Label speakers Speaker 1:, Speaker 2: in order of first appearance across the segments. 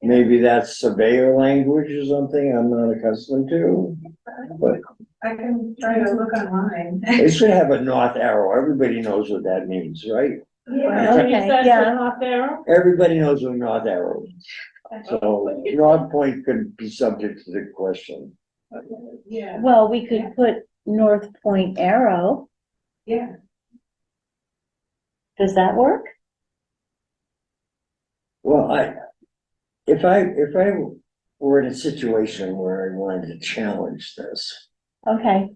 Speaker 1: Maybe that's surveyor language or something I'm not accustomed to. But
Speaker 2: I can try to look online.
Speaker 1: it should have a north arrow. Everybody knows what that means, right?
Speaker 2: Yeah.
Speaker 3: Okay, yeah.
Speaker 1: Everybody knows what north arrow is. So North Point could be subject to the question.
Speaker 2: Yeah,
Speaker 3: Well, we could put North Point Arrow.
Speaker 2: yeah,
Speaker 3: Does that work?
Speaker 1: Well, I, if I, if I were in a situation where I wanted to challenge this,
Speaker 3: Okay.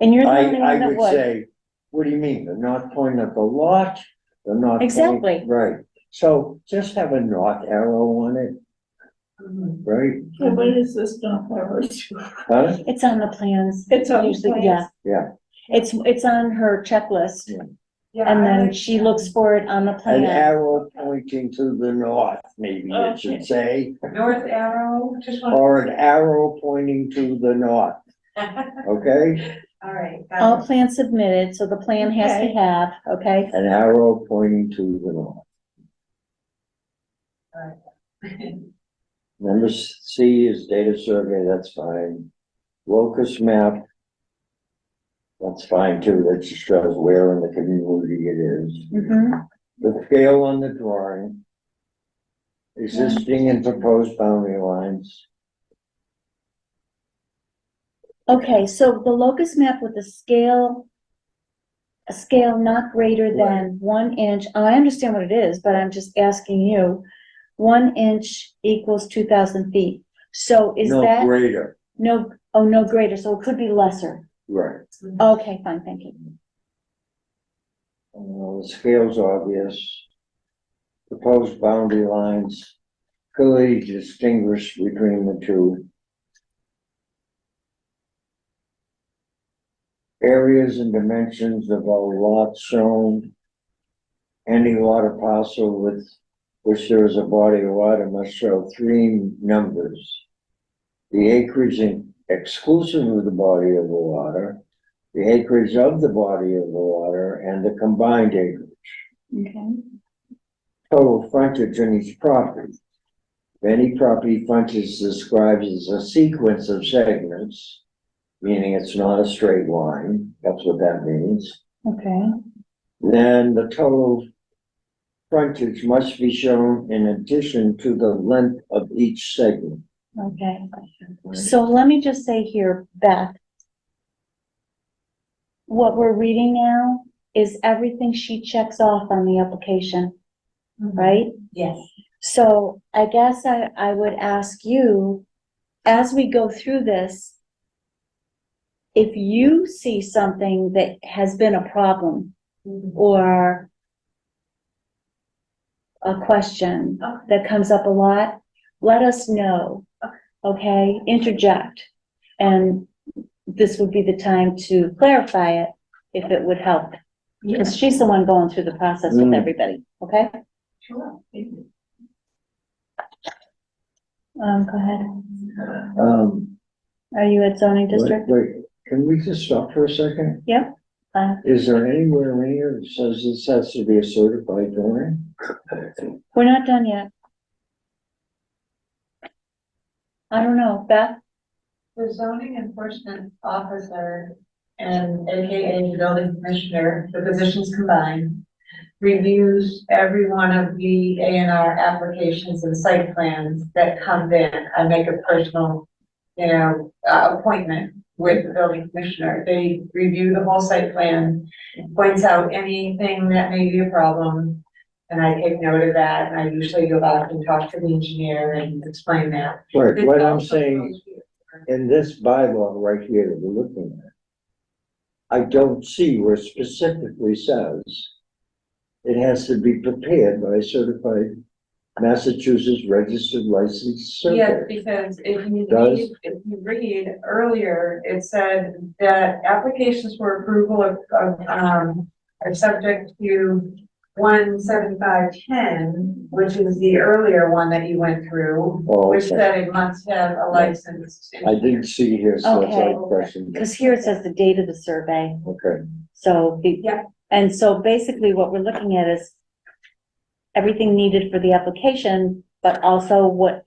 Speaker 3: And you're the
Speaker 1: I,
Speaker 3: only one
Speaker 1: I
Speaker 3: that
Speaker 1: would
Speaker 3: would.
Speaker 1: say, what do you mean? The north point of the lot? The north point?
Speaker 3: Exactly.
Speaker 1: Right. So just have a north arrow on it,
Speaker 2: mhm.
Speaker 1: right?
Speaker 4: So what is this dump over
Speaker 1: Huh?
Speaker 3: It's on the plans.
Speaker 4: It's on the
Speaker 3: Usually,
Speaker 4: plans.
Speaker 3: Yeah.
Speaker 1: Yeah.
Speaker 3: It's, it's on her checklist
Speaker 2: yeah.
Speaker 3: and
Speaker 2: I
Speaker 3: then
Speaker 2: like-
Speaker 3: she looks for it on the
Speaker 1: An
Speaker 3: plan.
Speaker 1: arrow pointing to the north, maybe
Speaker 3: Oh,
Speaker 1: it should
Speaker 4: Okay.
Speaker 1: say,
Speaker 2: North arrow, just one.
Speaker 1: or an arrow pointing to the north, okay?
Speaker 2: All right. got
Speaker 3: All
Speaker 2: it.
Speaker 3: plans submitted, so the plan has to
Speaker 4: Okay.
Speaker 3: have, okay?
Speaker 1: An arrow pointing to the north. Number s- C is data survey, that's fine. Locus map. That's fine too, that just shows where in the community it is.
Speaker 3: Mhm.
Speaker 1: The scale on the drawing. Existing and proposed boundary lines.
Speaker 3: Okay, so the locus map with the scale, a scale not greater than one inch, I understand what it is, but I'm just asking you. One inch equals two thousand feet. So is
Speaker 1: No
Speaker 3: that,
Speaker 1: Greater,
Speaker 3: no, oh, no greater, so it could be lesser.
Speaker 1: right.
Speaker 3: Okay, fine, thank you.
Speaker 1: Uh, the scale's obvious. Proposed boundary lines clearly distinguish between the two. Areas and dimensions of all lots shown. Any lot or parcel with which there is a body of water must show three numbers. The acreage in- exclusive of the body of the water, the acreage of the body of the water, and the combined acreage
Speaker 3: Okay.
Speaker 1: total frontage on each property. Any property frontage described as a sequence of segments, meaning it's not a straight line, that's what that means.
Speaker 3: Okay,
Speaker 1: Then the total frontage must be shown in addition to the length of each segment.
Speaker 3: okay. So let me just say here, Beth. What we're reading now is everything she checks off on the application, right?
Speaker 2: Mm-hmm. Yes.
Speaker 3: So I guess I, I would ask you, as we go through this, if you see something that has been a problem
Speaker 2: Mhm.
Speaker 3: or a question
Speaker 2: Okay.
Speaker 3: that comes up a lot, let us know, okay? Interject. And this would be the time to clarify it if it would help. Because she's the one going through the process with
Speaker 1: Mm.
Speaker 3: everybody, okay?
Speaker 2: Sure. Thank you.
Speaker 3: Um, go ahead.
Speaker 1: Um,
Speaker 3: Are you at zoning
Speaker 1: wait,
Speaker 3: district?
Speaker 1: wait, can we just stop for a second?
Speaker 3: Yeah. Uh,
Speaker 1: Is there anywhere in here that says this has to be a certified drawing?
Speaker 3: We're not done yet. I don't know, Beth,
Speaker 2: The zoning enforcement officer and AKA building commissioner, the positions combined, reviews every one of the A and R applications and site plans that come in. I make a personal, you know, uh, appointment with the building commissioner. They review the whole site plan, points out anything that may be a problem. And I take note of that, and I usually go back and talk to the engineer and explain that.
Speaker 1: Right, what I'm
Speaker 2: It's
Speaker 1: saying
Speaker 2: also-
Speaker 1: in this bylaw right here that we're looking at, I don't see where specifically says it has to be prepared by a certified Massachusetts registered licensed
Speaker 2: Yes,
Speaker 1: surveyor.
Speaker 2: because if you
Speaker 1: Does-
Speaker 2: read, if you read earlier, it said that applications for approval of, of, um, are subject to one seventy-five ten, which is the earlier one that you went through,
Speaker 1: Oh,
Speaker 2: which
Speaker 1: okay.
Speaker 2: said it must have a license.
Speaker 1: I didn't see here, so that's
Speaker 3: Okay.
Speaker 1: a question.
Speaker 3: because here it says the date of the survey,
Speaker 1: Okay,
Speaker 3: so. the-
Speaker 2: Yeah.
Speaker 3: And so basically what we're looking at is everything needed for the application, but also what